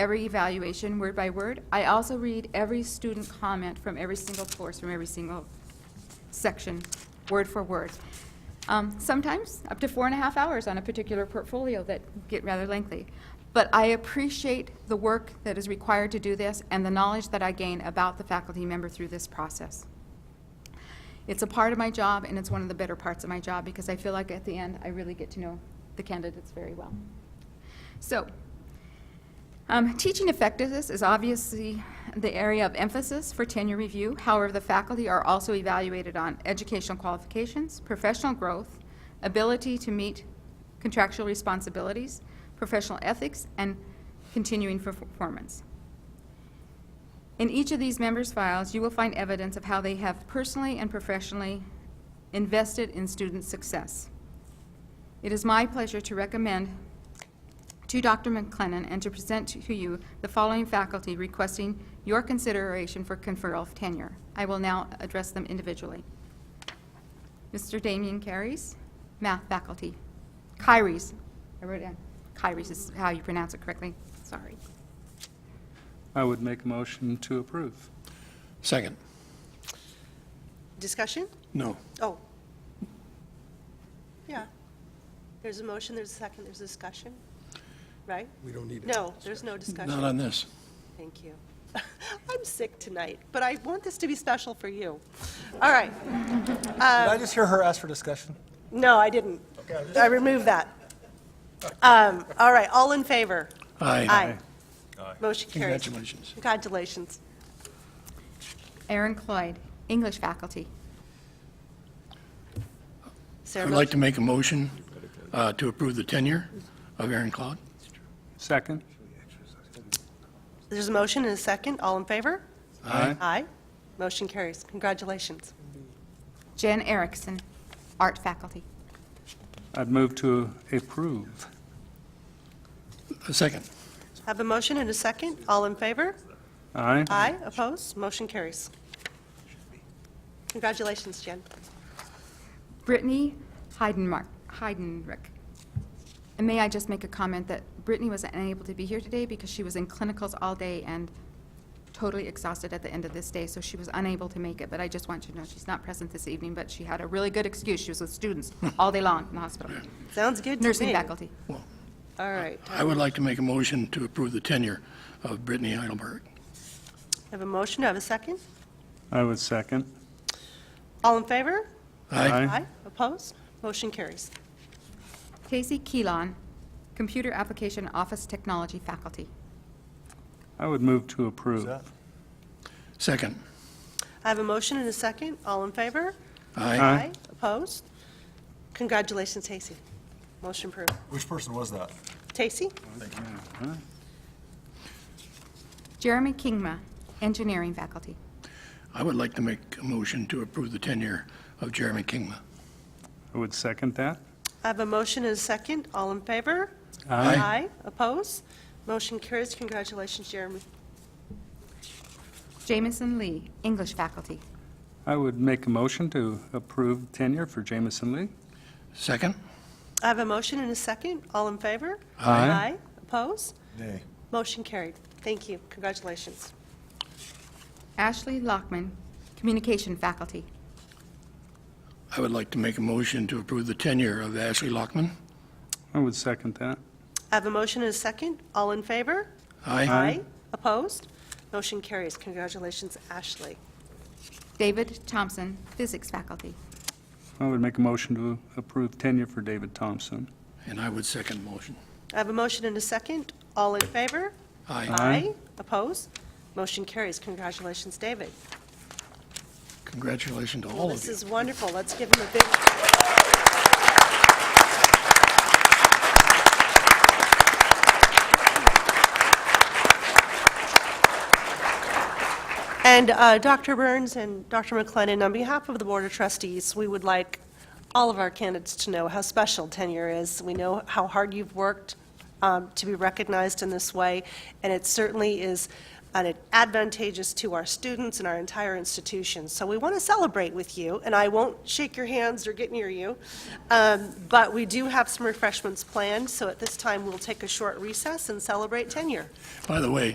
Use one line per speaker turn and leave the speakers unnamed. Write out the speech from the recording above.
every evaluation, word by word. I also read every student comment from every single course, from every single section, word for word. Um, Sometimes up to four and a half hours on a particular portfolio that get rather lengthy. But I appreciate the work that is required to do this and the knowledge that I gain about the faculty member through this process. It's a part of my job, and it's one of the better parts of my job, because I feel like at the end, I really get to know the candidates very well. So, um, Teaching effectiveness is obviously the area of emphasis for tenure review. However, the faculty are also evaluated on educational qualifications, professional growth, ability to meet contractual responsibilities, professional ethics, and continuing perf- performance. In each of these members' files, you will find evidence of how they have personally and professionally invested in student success. It is my pleasure to recommend to Dr. McLennan and to present to you the following faculty requesting your consideration for conferral of tenure. I will now address them individually. Mr. Damien Carries, math faculty. Kyries, I wrote it down, Kyries is how you pronounce it correctly, sorry.
I would make a motion to approve.
Second.
Discussion?
No.
Oh. Yeah. There's a motion, there's a second, there's a discussion, right?
We don't need it.
No, there's no discussion.
Not on this.
Thank you. I'm sick tonight, but I want this to be special for you. All right.
Did I just hear her ask for discussion?
No, I didn't. I removed that. Um, All right, all in favor?
Aye.
Aye. Motion carries.
Congratulations.
Congratulations.
Aaron Cloyd, English faculty.
Sarah,
I'd like to
motion-
make a motion uh, to approve the tenure of Aaron Cloud.
Second?
There's a motion and a second, all in favor?
Aye.
Aye. Motion carries. Congratulations.
Jen Erickson, art faculty.
I'd move to approve.
A Uh, second.
Have a motion and a second, all in favor?
Aye?
Aye, opposed, motion carries. Congratulations, Jen.
Brittany Heidenmark, Heidenreich. And may I just make a comment that Brittany was unable to be here today because she was in clinicals all day and totally exhausted at the end of this day, so she was unable to make it. But I just want you to know, she's not present this evening, but she had a really good excuse. She was with students all day long in the hospital,
Sounds good to me.
nursing faculty.
All right.
I would like to make a motion to approve the tenure of Brittany Heidelberg.
Have a motion, have a second?
I would second.
All in favor?
Aye.
Aye, opposed, motion carries.
Casey Keelan, Computer Application Office Technology faculty.
I would move to approve.
Second.
I have a motion and a second, all in favor?
Aye.
Opposed? Congratulations, Tacey. Motion approved.
Which person was that?
Tacey?
Jeremy Kingma, Engineering faculty.
I would like to make a motion to approve the tenure of Jeremy Kingma.
I would second that.
I have a motion and a second, all in favor?
Aye.
Aye, opposed, motion carries. Congratulations, Jeremy.
Jamison Lee, English faculty.
I would make a motion to approve tenure for Jamison Lee.
Second.
I have a motion and a second. All in favor?
Aye.
Aye. Opposed?
Nay.
Motion carried. Thank you. Congratulations.
Ashley Lockman, Communication faculty.
I would like to make a motion to approve the tenure of Ashley Lockman.
I would second that.
I have a motion and a second. All in favor?
Aye.
Opposed? Motion carries. Congratulations, Ashley.
David Thompson, physics faculty.
I would make a motion to approve tenure for David Thompson.
And I would second the motion.
I have a motion and a second. All in favor?
Aye.
Aye.
Opposed? Motion carries. Congratulations, David.
Congratulations to
Well,
all of
This
you.
is wonderful. Let's give him a big. And uh, Dr. Burns and Dr. McLennan, on behalf of the Board of Trustees, we would like all of our candidates to know how special tenure is. We know how hard you've worked um, to be recognized in this way, and it certainly is and it advantageous to our students and our entire institution. So we want to celebrate with you, and I won't shake your hands or get near you, um, but we do have some refreshments planned, so at this time, we'll take a short recess and celebrate tenure.
By the way,